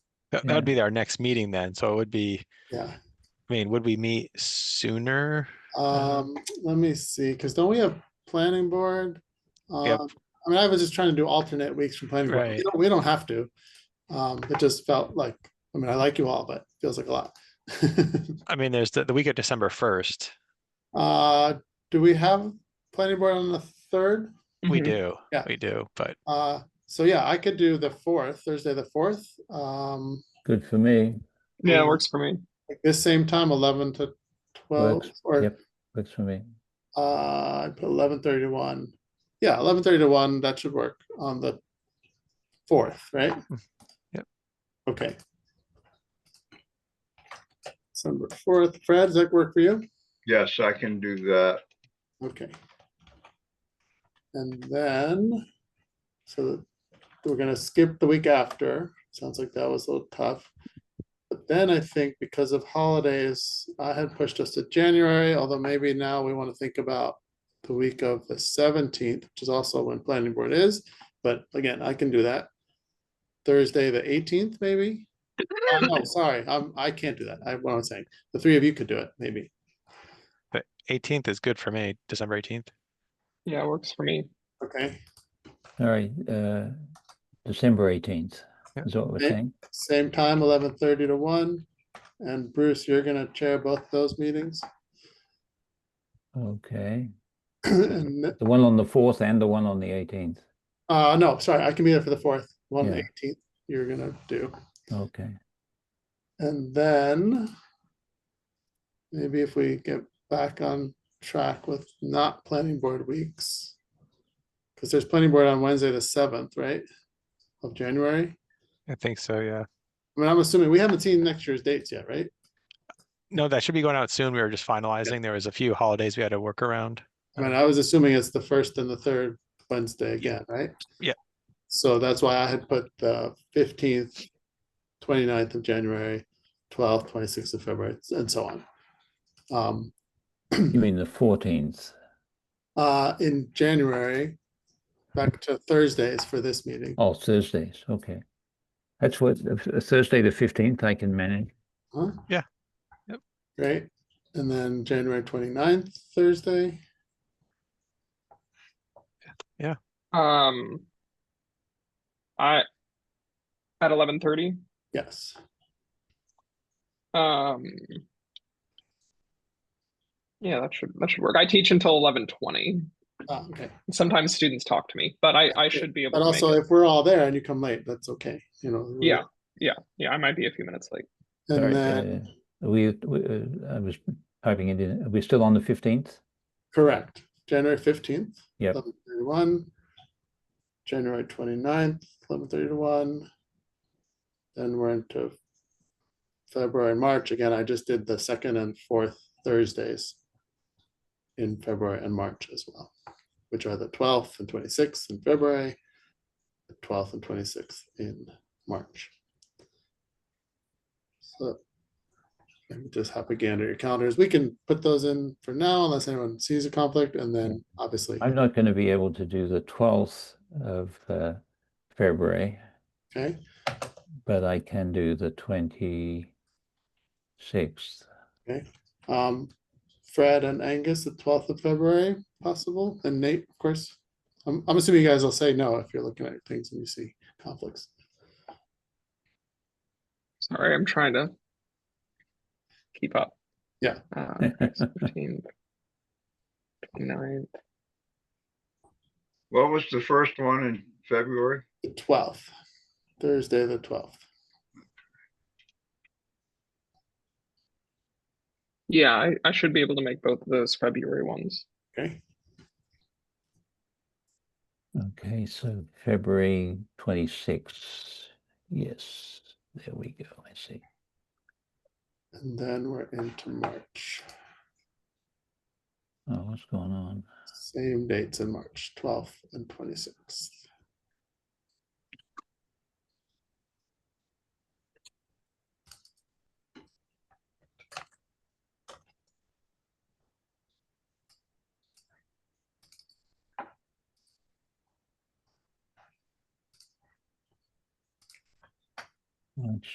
That Yeah. that would be our next meeting then. So it would be, Yeah, I mean, would we meet sooner? um, let me see, because don't we have planning board? Yep. Um, I mean, I was just trying to do alternate weeks from planning board. We Right. don't- We don't have to. Um, it just felt like, I mean, I like you all, but feels like a lot. I mean, there's the, the week of December first. Uh, do we have planning board on the third? We Mhm. do, Yeah. we do, but Uh, so yeah, I could do the fourth, Thursday, the fourth, um, Good for me. Yeah, Yeah. it works for me. like this same time, eleven to twelve, Works, or yep. Works for me. Uh, I put eleven thirty to one. Yeah, eleven thirty to one, that should work on the fourth, right? Yep. Okay. December fourth, Fred, does that work for you? Yes, I can do that. Okay. And then, so we're gonna skip the week after, sounds like that was a little tough. But then I think because of holidays, I had pushed us to January, although maybe now we want to think about the week of the seventeenth, which is also when planning board is, but again, I can do that. Thursday, the eighteenth, maybe? Oh, No, sorry, I'm, I can't do that, I, what I'm saying, the three of you could do it, maybe. eighteenth is good for me, December eighteenth. Yeah, it works for me. Okay, All right, uh, December eighteenth Yeah. is what we're Okay. saying. Same time, eleven thirty to one. And Bruce, you're gonna chair both those meetings. Okay, And, the one on the fourth and the one on the eighteenth. Uh, no, sorry, I can be there for the fourth, one Yeah. eighteenth, you're gonna do. Okay, And then maybe if we get back on track with not planning board weeks. Because there's planning board on Wednesday, the seventh, right? Of January. I think so, yeah. I mean, I'm assuming, we haven't seen next year's dates yet, right? No, that should be going out soon. We were just finalizing. There was a few holidays we had to work around. I mean, I was assuming it's the first and the third Wednesday again, right? Yeah. So that's why I had put the fifteenth, 29th of January, twelfth, twenty-sixth of February, and so on. Um, you mean the fourteenth? uh, in January, back to Thursdays for this meeting. Oh, Thursdays, okay. That's what, uh, Thursday the fifteenth I can manage. Huh? Yeah. Yep. Great. And then January 29th, Thursday. Um, I at eleven thirty. Yes. Um, yeah, that should that should work. I teach until eleven twenty. Ah, Okay. Sometimes students talk to me, but I I should be able. But to make also, it. if we're all there and you come late, that's okay. You know. we're- yeah, yeah, yeah. I might be a few minutes late. And Sorry, then, uh, We, we, uh, I was typing it in, are we still on the fifteenth? Correct. January fifteenth. Yep. Eleven thirty-one. January 29th, eleven thirty to one. Then we're into February, and March. Again, I just did the second and fourth Thursdays in February and March as well, which are the twelfth and twenty-sixth in February, the twelfth and twenty-sixth in March. So let me just hop again to your calendars. We can put those in for now unless anyone sees a conflict and then obviously, I'm not going to be able to do the twelfth of, uh, February. okay? but I can do the twenty sixth. Um, Fred and Angus, the twelfth of February, possible, and Nate, of course. I'm, I'm assuming you guys will say no if you're looking at things and you see conflicts. Sorry, I'm trying to keep up. Yeah. Um, 15th, 29th. What was the first one in February? The twelfth, Thursday, the twelfth. Yeah, I, I should be able to make both of those February ones. Okay, Okay, so February twenty sixth. Yes, there we go. I see. and then we're into March. Oh, what's going on? Same dates in March, twelfth and twenty-sixth. Let's